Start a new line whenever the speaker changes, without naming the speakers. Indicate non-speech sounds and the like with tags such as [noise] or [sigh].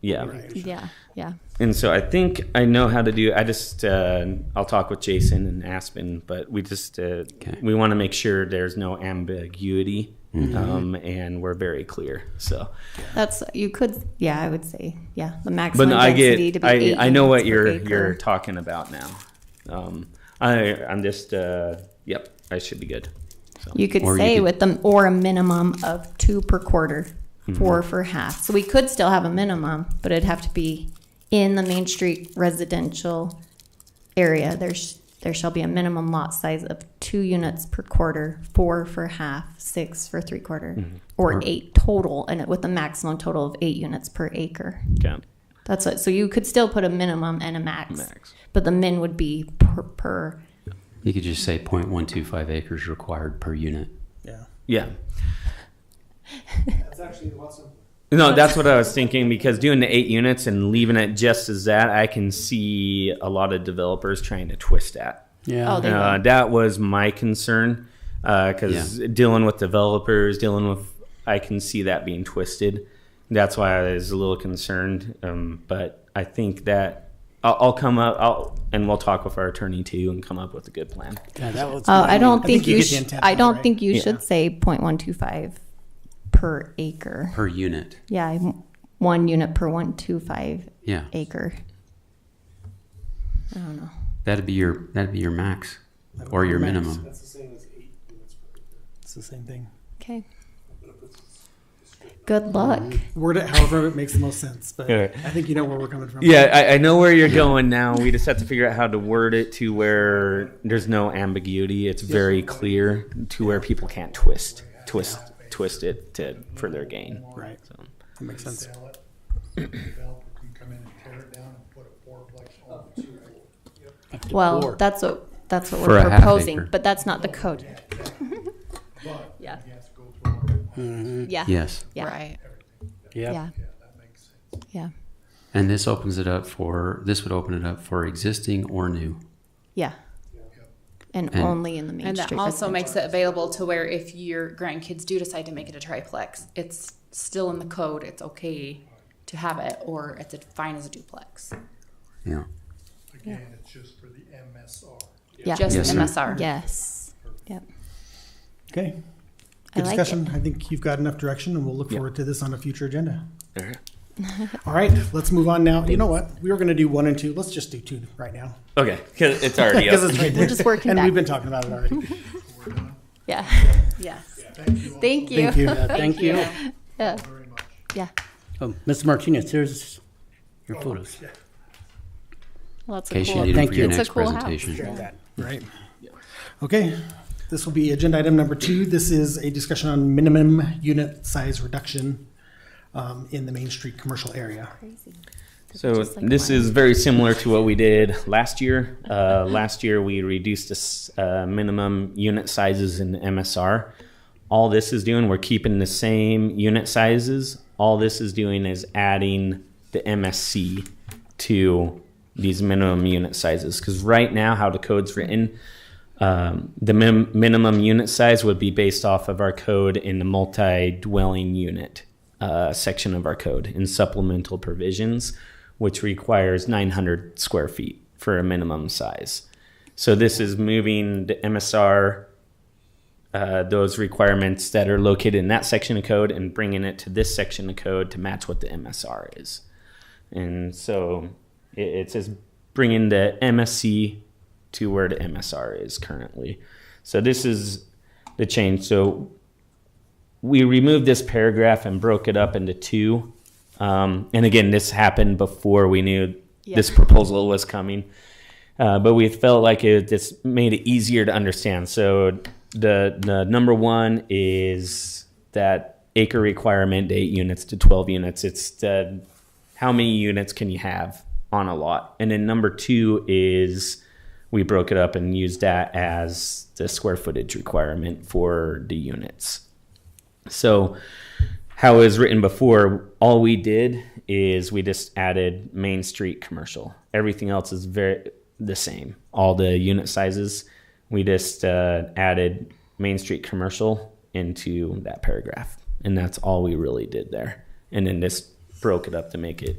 yeah.
Yeah. Yeah.
And so I think I know how to do. I just uh, I'll talk with Jason and Aspen, but we just uh, we want to make sure there's no ambiguity, um, and we're very clear. So,
That's you could. Yeah, I would say. Yeah, the
but
maximum
no, I
density to
get I,
be eight
I know what
units per
you're
acre.
you're talking about now. Um, I I'm just uh, yep. I should be good.
You could
Or you
say
could-
with them or a minimum of two per quarter,
Mm-hmm.
4 for half. So we could still have a minimum, but it'd have to be in the Main Street residential area. There's there shall be a minimum lot size of two units per quarter, four for half, six for three quarter,
Mm-hmm.
or eight total, and with a maximum total of eight units per acre.
Okay.
That's it. So you could still put a minimum and a max,
Max.
but the min would be per, per
You could just say 0.125 acres required per unit.
Yeah.
Yeah.
That's actually a lot simpler.
No, that's what I was thinking because doing the eight units and leaving it just as that, I can see a lot of developers trying to twist that.
Yeah.
Oh, they-
Uh, that was my concern because dealing with developers, dealing with, I can see that being twisted. That's why I was a little concerned. Um, but I think that I'll, I'll come up, I'll, and we'll talk with our attorney too and come up with a good plan.
Yeah, that was
Oh,
my-
I don't think you,
get the
sh-
intent
I
of it,
don't
right?
think you
Yeah.
should say 0.125 per acre.
Per unit.
Yeah, I'm- one unit per 125
Yeah.
acre.
That'd be your that'd be your max or your
Max.
minimum.
That's the same as eight units per acre.
It's the same thing.
Okay. Good luck.
Word it however it makes the most sense, but
Yeah.
I think you know where we're coming from.
Yeah, I, I know where you're going now. We just have to figure out how to word it to where there's no ambiguity. It's very clear to where people can't twist, twist, twist it to for their gain.
Right.
So,
That makes sense.
sell it, the developer can come in and tear it down and put a fourplex on it.
Well, that's what, that's what
For
we're
a half
proposing,
acre.
but that's not the code. [laughs]
But you
Yeah,
have to go through, all-
Mm-hmm.
yeah,
Yes.
yeah,
Right.
yeah,
yeah, that makes sense.
yeah,
And this opens it up for this would open it up for existing or new.
yeah. And
And-
only in the Main
And that
Street.
also
residential.
makes it available to where if your grandkids do decide to make it a triplex, it's still in the code, it's okay to have it, or it's fine as a duplex.
Yeah.
Again, it's just for the MSR.
Yeah.
Just
Yes, sir.
MSR.
Yes, yep.
Okay.
I
Good
like it.
discussion. I think you've got enough direction, and we'll look forward to this on a future agenda.
all right.
[laughs] All right, let's move on now. You know what? We were going to do one and two. Let's just do two right now [laughs]
Okay, because it's [laughs] already
because
up.
it's right there.
just working
and
back.
we've been talking about
[laughs]
it already.
Yeah,
Yes.
[laughs] thank you.
Thank you. Thank you.
Yeah,
Very much.
yeah,
Oh, Mr. Martinez, here's your photos.
lots
In
of
case you
cool-
need it
Thank
for your
you.
It's a
next
cool house.
presentation.
Right. Okay. This will be agenda item number two. This is a discussion on minimum unit size reduction um, in the Main Street commercial area.
Crazy.
So
Just like
this
mine.
is very similar to what we did last year. Uh, [laughs] last year we reduced the s- uh, minimum unit sizes in MSR. All this is doing, we're keeping the same unit sizes. All this is doing is adding the MSC to these minimum unit sizes. Because right now, how the code's written, um, the min- minimum unit size would be based off of our code in the multi-dwelling unit uh, section of our code in supplemental provisions, which requires 900 square feet for a minimum size. So this is moving the MSR, uh, those requirements that are located in that section of code, and bringing it to this section of code to match what the MSR is. And so it, it's just bringing the MSC to where the MSR is currently. So this is the change. So we removed this paragraph and broke it up into two. Um, and again, this happened before we knew this proposal was coming. Uh, but we felt like it just made it easier to understand. So the the number one is that acre requirement, eight units to twelve units. It's the how many units can you have on a lot? And then number two is we broke it up and used that as the square footage requirement for the units. So, how it was written before, all we did is we just added Main Street commercial. Everything else is very the same. All the unit sizes, we just uh, added Main Street commercial into that paragraph, and that's all we really did there. And then just broke it up to make it